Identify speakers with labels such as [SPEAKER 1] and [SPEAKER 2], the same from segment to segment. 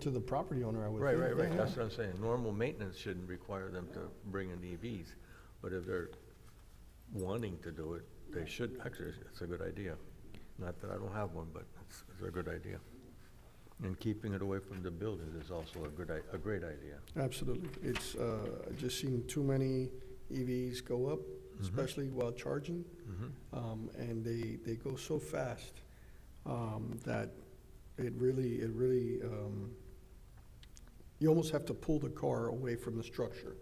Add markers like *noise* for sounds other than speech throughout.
[SPEAKER 1] to the property owner, I would
[SPEAKER 2] Right,
[SPEAKER 1] think.
[SPEAKER 2] right, right,
[SPEAKER 1] yeah,
[SPEAKER 2] that's
[SPEAKER 1] yeah.
[SPEAKER 2] what I'm saying. Normal maintenance shouldn't require them to bring in EVs, but if they're wanting to do it, they should, actually, it's a good idea. Not that I don't have one, but it's, it's a good idea. And keeping it away from the buildings is also a good, i- a great idea.
[SPEAKER 1] Absolutely. It's, uh, I've just seen too many EVs go up,
[SPEAKER 2] Mm-hmm.
[SPEAKER 1] especially while charging.
[SPEAKER 2] Mhm.
[SPEAKER 1] Um, and they, they go so fast, um, that it really, it really, um, you almost have to pull the car away from the structure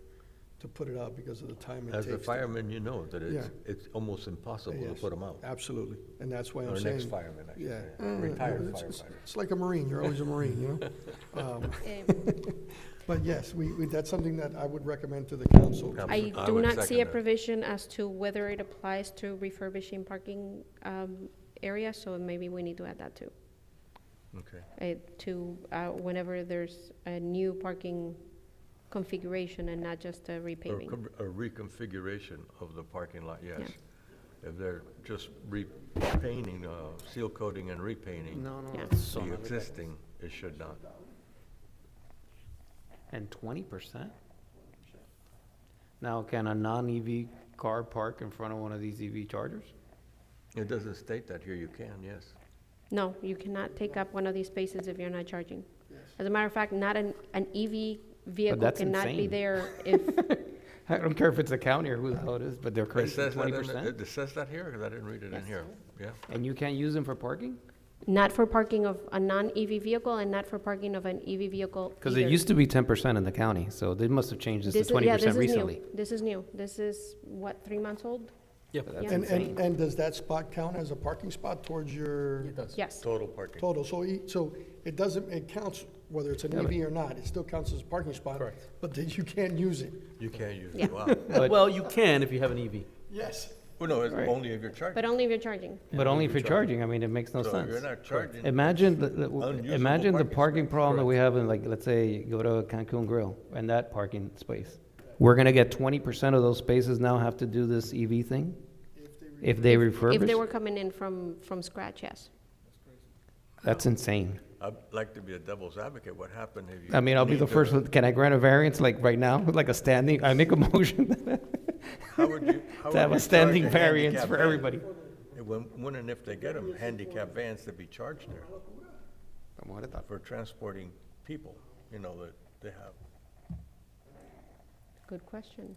[SPEAKER 1] to put it out because of the time it takes.
[SPEAKER 2] As a
[SPEAKER 1] to-
[SPEAKER 2] fireman, you know that it's,
[SPEAKER 1] Yeah.
[SPEAKER 2] it's almost impossible to
[SPEAKER 1] Yes,
[SPEAKER 2] put them out.
[SPEAKER 1] Absolutely. And that's why I'm
[SPEAKER 2] Or
[SPEAKER 1] saying.
[SPEAKER 2] next fireman, I should
[SPEAKER 1] Yeah.
[SPEAKER 2] say,
[SPEAKER 1] Uh,
[SPEAKER 2] retired
[SPEAKER 1] it's- it's-
[SPEAKER 2] firefighter.
[SPEAKER 1] It's like a Marine, you're always a Marine, you
[SPEAKER 2] *laughs*
[SPEAKER 1] know? Um, *laughs* But yes, we, we, that's something that I would recommend to the council.
[SPEAKER 2] Yeah.
[SPEAKER 3] I
[SPEAKER 2] I
[SPEAKER 3] do
[SPEAKER 2] would
[SPEAKER 3] not see
[SPEAKER 2] second
[SPEAKER 3] a
[SPEAKER 2] that.
[SPEAKER 3] provision as to whether it applies to refurbishing parking um, areas, so maybe we need to add that too.
[SPEAKER 2] Okay,
[SPEAKER 3] uh, To, uh, whenever there's a new parking configuration and not just a
[SPEAKER 2] or
[SPEAKER 3] repaving.
[SPEAKER 2] con- a reconfiguration of the parking lot, yes.
[SPEAKER 3] Yeah.
[SPEAKER 2] If they're just repainting, uh, seal coating and repainting.
[SPEAKER 4] No, no,
[SPEAKER 3] Yeah.
[SPEAKER 4] it's so
[SPEAKER 2] The
[SPEAKER 4] much better.
[SPEAKER 2] existing, it should not.
[SPEAKER 4] And twenty percent? Now, can a non-EV car park in front of one of these
[SPEAKER 3] *laughs*
[SPEAKER 4] EV chargers?
[SPEAKER 2] It doesn't state that here, you can, yes.
[SPEAKER 3] No, you cannot take up one of these spaces if you're not charging. As a matter of fact, not an, an EV vehicle
[SPEAKER 4] that's
[SPEAKER 3] cannot be
[SPEAKER 4] insane.
[SPEAKER 3] there
[SPEAKER 4] *laughs*
[SPEAKER 3] if,
[SPEAKER 4] I don't care if it's the county or who the hell it is, but they're
[SPEAKER 2] It
[SPEAKER 4] crazy,
[SPEAKER 2] says that
[SPEAKER 4] twenty
[SPEAKER 2] in the-
[SPEAKER 4] percent?
[SPEAKER 2] It says that here, because I didn't read it in here, yeah.
[SPEAKER 4] And you can't use them for parking?
[SPEAKER 3] not for parking of a non-EV vehicle and not for parking of an EV vehicle
[SPEAKER 4] Because it
[SPEAKER 3] either.
[SPEAKER 4] used to be ten percent in the county, so they must have changed this to
[SPEAKER 3] This is-
[SPEAKER 4] twenty
[SPEAKER 3] yeah, this
[SPEAKER 4] percent
[SPEAKER 3] is new.
[SPEAKER 4] recently.
[SPEAKER 3] This is new. This is, what, three months old?
[SPEAKER 4] That's
[SPEAKER 3] Yeah.
[SPEAKER 1] And,
[SPEAKER 4] insane.
[SPEAKER 1] and, and does that spot count as a parking spot towards your
[SPEAKER 3] Yes.
[SPEAKER 2] Total parking.
[SPEAKER 1] total? So, e- so it doesn't, it counts whether it's an
[SPEAKER 4] Yeah, but-
[SPEAKER 1] EV or not, it still counts as a parking spot.
[SPEAKER 5] Correct.
[SPEAKER 1] But then you can't use it.
[SPEAKER 2] You can't use
[SPEAKER 3] Yeah.
[SPEAKER 2] it,
[SPEAKER 4] *laughs*
[SPEAKER 2] wow.
[SPEAKER 4] But-
[SPEAKER 5] Well, you can if you have an E EV.
[SPEAKER 1] Yes.
[SPEAKER 2] Well, no, it's
[SPEAKER 4] Right.
[SPEAKER 2] only if you're charging.
[SPEAKER 3] But only if you're charging.
[SPEAKER 4] But only if
[SPEAKER 2] you're
[SPEAKER 4] you're charging, I mean, it makes no
[SPEAKER 2] So
[SPEAKER 4] sense.
[SPEAKER 2] you're not charging.
[SPEAKER 4] Imagine, the- the-
[SPEAKER 2] Unusable
[SPEAKER 4] imagine the
[SPEAKER 2] parking
[SPEAKER 4] parking
[SPEAKER 2] space,
[SPEAKER 4] problem that we have in like, let's say, you go to Cancun Grill and that parking space. We're gonna get twenty percent of those spaces now have to do this EV thing? If they
[SPEAKER 3] If they were
[SPEAKER 4] refurbish?
[SPEAKER 3] coming in from, from scratch, yes.
[SPEAKER 4] That's insane.
[SPEAKER 2] I'd like to be a devil's advocate, what happened if you?
[SPEAKER 4] I mean, I'll be
[SPEAKER 2] need
[SPEAKER 4] the
[SPEAKER 2] to-
[SPEAKER 4] first, one- can I grant a variance like right now, *laughs* like a standing, I make a motion
[SPEAKER 2] *laughs*
[SPEAKER 4] *laughs*
[SPEAKER 2] How would you? how
[SPEAKER 4] to have
[SPEAKER 2] would
[SPEAKER 4] a
[SPEAKER 2] you
[SPEAKER 4] standing
[SPEAKER 2] charge a
[SPEAKER 4] variance
[SPEAKER 2] handicap
[SPEAKER 4] for
[SPEAKER 2] van?
[SPEAKER 4] everybody?
[SPEAKER 2] And When, when and if they get them, handicap vans to be charged there for transporting people, you know, that they have.
[SPEAKER 3] Good question.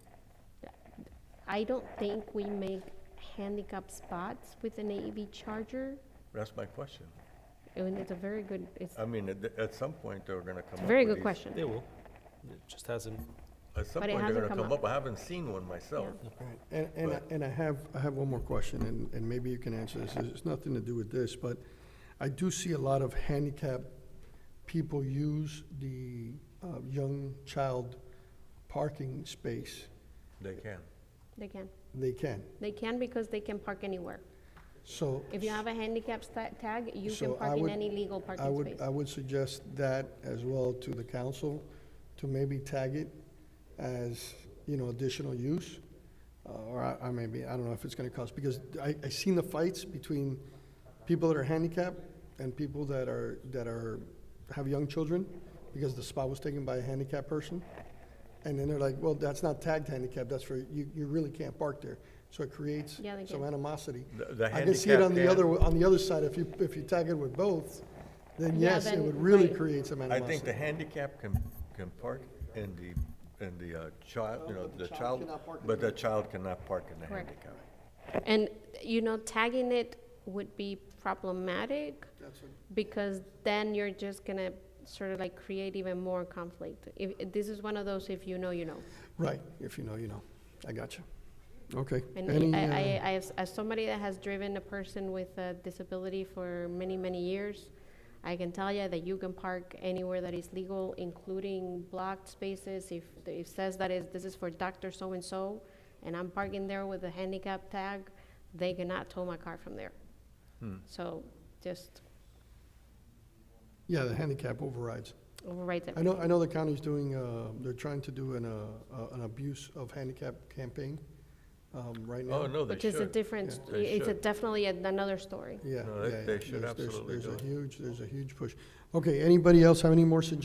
[SPEAKER 3] I don't think we make handicap spots with an AEV charger.
[SPEAKER 2] That's my question.
[SPEAKER 3] And it's a very good, it's
[SPEAKER 2] I mean, at, at some point, they're gonna come up
[SPEAKER 3] it's a
[SPEAKER 2] with
[SPEAKER 3] very good
[SPEAKER 2] these-
[SPEAKER 3] question.
[SPEAKER 5] They will. It just hasn't.
[SPEAKER 2] At some
[SPEAKER 3] But it
[SPEAKER 2] point, they're
[SPEAKER 3] hasn't
[SPEAKER 2] gonna
[SPEAKER 3] come
[SPEAKER 2] come
[SPEAKER 3] up.
[SPEAKER 2] up, I haven't seen one myself.
[SPEAKER 1] Right, and, and, I-
[SPEAKER 2] But-
[SPEAKER 1] and I have, I have one more question, and, and maybe you can answer this, it's nothing to do with this, but I do see a lot of handicapped people use the, uh, young child parking space,
[SPEAKER 2] They can.
[SPEAKER 3] They can.
[SPEAKER 1] they can,
[SPEAKER 3] They can because they can park anywhere.
[SPEAKER 1] so.
[SPEAKER 3] If you have a handicap sta- tag, you
[SPEAKER 1] So
[SPEAKER 3] can
[SPEAKER 1] I
[SPEAKER 3] park in
[SPEAKER 1] would-
[SPEAKER 3] any legal
[SPEAKER 1] I
[SPEAKER 3] parking
[SPEAKER 1] would,
[SPEAKER 3] space.
[SPEAKER 1] I would suggest that as well to the council, to maybe tag it as, you know, additional use. uh, Or I, I maybe, I don't know if it's gonna cost, because I, I seen the fights between people that are handicapped and people that are, that are, have young children, because the spot was taken by a handicapped person. And then they're like, well, that's not tagged handicap, that's for, you, you really can't park there. So it creates
[SPEAKER 3] Yeah, they
[SPEAKER 1] some
[SPEAKER 3] can.
[SPEAKER 1] animosity.
[SPEAKER 2] The- the
[SPEAKER 1] I can see it
[SPEAKER 2] handicap
[SPEAKER 1] on the
[SPEAKER 2] can-
[SPEAKER 1] other, on the other side, if you, if you tag it with both, then
[SPEAKER 3] Yeah,
[SPEAKER 1] yes, it
[SPEAKER 3] then-
[SPEAKER 1] would really
[SPEAKER 3] right.
[SPEAKER 1] create some
[SPEAKER 2] I think the
[SPEAKER 1] animosity.
[SPEAKER 2] handicap can, can park in the, in the uh, child, you know, the child,
[SPEAKER 1] cannot park in
[SPEAKER 2] but the child cannot park in the
[SPEAKER 3] Correct.
[SPEAKER 2] handicap.
[SPEAKER 1] uh,
[SPEAKER 3] And, you know, tagging it would be problematic because then you're just gonna sort of like create even more conflict. If, if this is one of those, if you know, you know.
[SPEAKER 1] Right, if you know, you know. I got you. Okay. Any,
[SPEAKER 3] And I, I,
[SPEAKER 1] uh,
[SPEAKER 3] I, as, as somebody that has driven a person with a disability for many, many years, I can tell you that you can park anywhere that is legal, including blocked spaces. If the- it says that is, this is for doctor so-and-so, and I'm parking there with a handicap tag, they cannot tow my car from there. So just
[SPEAKER 1] Yeah, the handicap overrides.
[SPEAKER 3] overwrite
[SPEAKER 1] I
[SPEAKER 3] it.
[SPEAKER 1] know, I know the county's doing, uh, they're trying to do an, uh, uh, an abuse of handicap campaign, um, right now.
[SPEAKER 2] Oh, no, they
[SPEAKER 3] Which is a
[SPEAKER 2] should.
[SPEAKER 3] different,
[SPEAKER 2] Yeah. They
[SPEAKER 3] it's a
[SPEAKER 2] should.
[SPEAKER 3] definitely an- another story.
[SPEAKER 1] Yeah.
[SPEAKER 2] No, they-
[SPEAKER 1] yeah,
[SPEAKER 2] they should
[SPEAKER 1] there's- there's-
[SPEAKER 2] absolutely do
[SPEAKER 1] There's
[SPEAKER 2] it.
[SPEAKER 1] a huge, there's a huge push. Okay, anybody else have any more suggestions